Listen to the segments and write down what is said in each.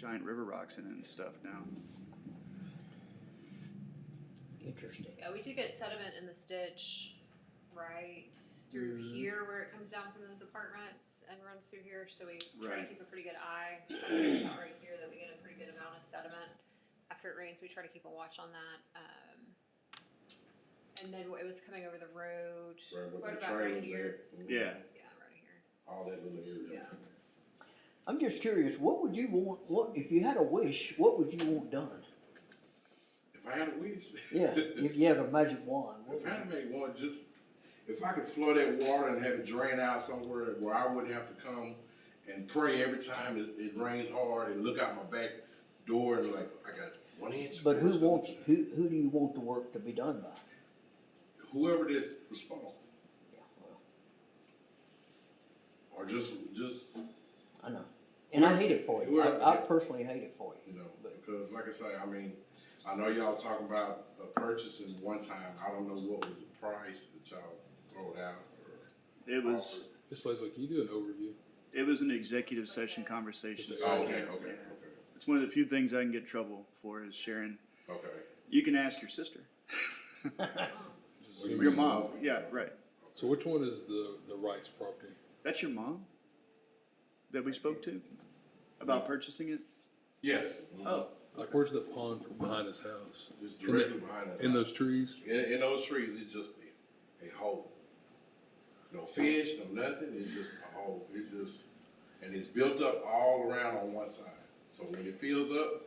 giant river rocks in it and stuff now. Interesting. Yeah, we do get sediment in the ditch right through Mm-hmm. Mhm. here where it comes down from those apartments and runs through here. So we try to Right. keep a pretty good eye. It's about right here that we get a pretty good amount of sediment after it rains. We try to keep a watch on that. Um, and then it was coming over the road. Right, with What the about right trailers there. here? Yeah, Yeah, right here. All that little area. Yeah. I'm just curious, what would you want, what, if you had a wish, what would you want done? If I had a wish, Yeah, if you had a magic wand, what if would- I made one, just, if I could flood that water and have it drain out somewhere where I wouldn't have to come and pray every time it, it rains hard and look out my back door and like, I got one inch. but who of water. wants, who, who do you want the work to be done by? Whoever that's responsible, Yeah, well, or just, just, I know, and I hate it for you, Whoever- I, I personally hate it for you you, know, but, because like I say, I mean, I know y'all talking about uh, purchasing one time, I don't know what was the price that y'all throwed out or. it was, Ms. Leslie, can you do an overview? it was an executive session conversation. so I Oh, okay, can't- okay, okay, It's one of the few things I can get in trouble for is sharing. okay. You can ask your sister, What do you your mean? mom. Yeah, right. So which one is the, the Rice property? That's your mom that we spoke to about purchasing it. Yes. Oh, Like where's the pond from behind his house? It's In directly the- behind it. In those trees? In, in those trees, it's just a, a hole. No fish, no nothing, it's just a hole, it's just, and it's built up all around on one side. So when it fills up,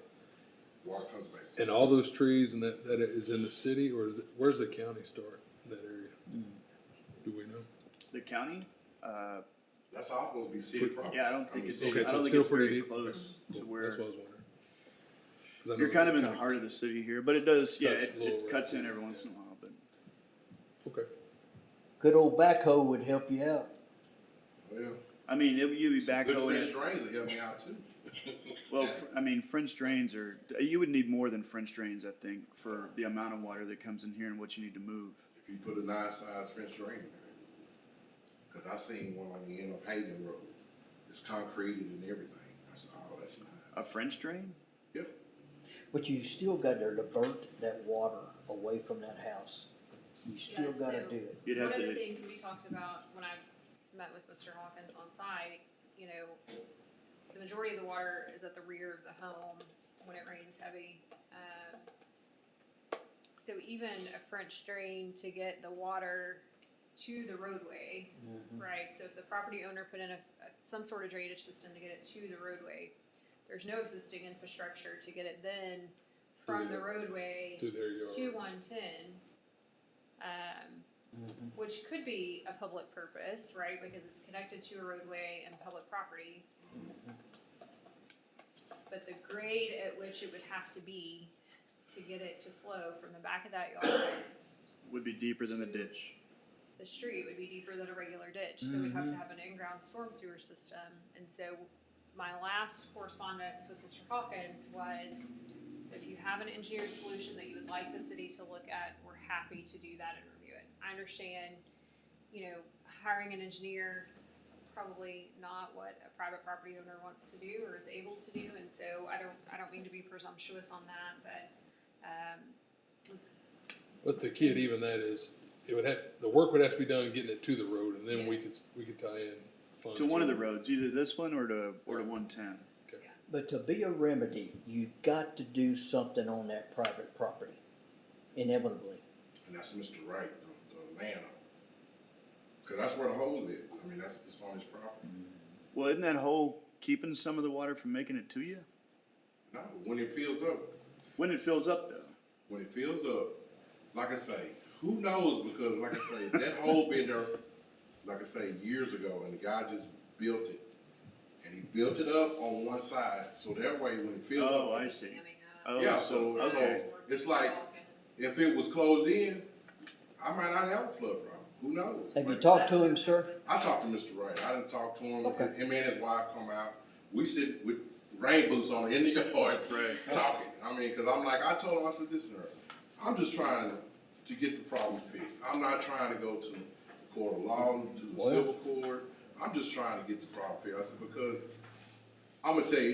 water comes back. And all those trees and that, that is in the city or is it, where's the county start in that area? Hmm. Do we know? the county. Uh, That's all supposed to be city property. yeah, I don't think mean, it's. city- Okay, I so don't it's think it's still very pretty deep. close to Cool. where That's what I was wondering. 'Cause I know you're kind of the in the heart of the city here, but it does. Yeah, Cuts it, a little it cuts right in there, every once in a while, but. Okay. good old backhoe would help you out. Well, I mean, it, you'd be back good fish going. drains will help me out too. Well, fr- I mean, French drains are. You would need more than French drains, I think, for the amount of water that comes in here and what you need to move. If you put a nice sized French drain there. Cause I seen one on the end of Hayden Road, it's concreted and everything, I said, oh, that's nice. A French drain? Yep. But you still got to divert that water away from that house. You still Yeah, got to so- do it. You'd One have of the to. things we talked about when I met with Mr. Hawkins on site, you know, the majority of the water is at the rear of the home when it rains heavy. Um, So even a French drain to get the water to the roadway, Mm-hmm. right? So if the property owner put in a, some sort of drainage system to get it to the roadway, there's no existing infrastructure to get it then from the Yeah. roadway To their yard. two one ten, um, which could be a public purpose, right? Because it's connected to a roadway and public property. But the grade at which it would have to be to get it to flow from the back of that yard, Would be deeper than the ditch. the street would be deeper than a regular ditch, so we'd have to have an in-ground storm sewer system. And so my last correspondence with Mr. Hawkins was, if you have an engineered solution that you would like the city to look at, we're happy to do that and review it. I understand, you know, hiring an engineer is probably not what a private property owner wants to do or is able to do, and so I don't, I don't mean to be presumptuous on that, but, um, But the kid, even that is, it would have, the work would have to be done getting it to the road and then we could, Yes. we could tie in. funds. To one of the roads, either this one or to or to one ten. But to be a remedy, you've got to do something on that private property, inevitably. And that's Mr. Wright, the, the landowner. Cause that's where the hole is. I mean, that's, it's on his property. Well, isn't that hole keeping some of the water from making it to you? No, when it fills up, When it fills up, though, when it fills up, like I say, who knows? Because like I say, that hole been there, like I say, years ago, and the guy just built it. And he built it up on one side, so that way when it fills up. Oh, I see. jamming up. Oh, Yeah, so so- okay. It's like- If it was closed in, I might not have a flood problem. Who knows? Have you Like I talked to him, sir? I talked to Mr. Wright. I didn't talk to him. Okay. Him and his wife come out. We sit with rain boots on in the yard Right. talking. I mean, because I'm like, I told him, I said, listen, Earl, I'm just trying to get the problem fixed. I'm not trying to go to the court of law, to the Well- civil court. I'm just trying to get the problem fixed. I said, because I'm going to tell you,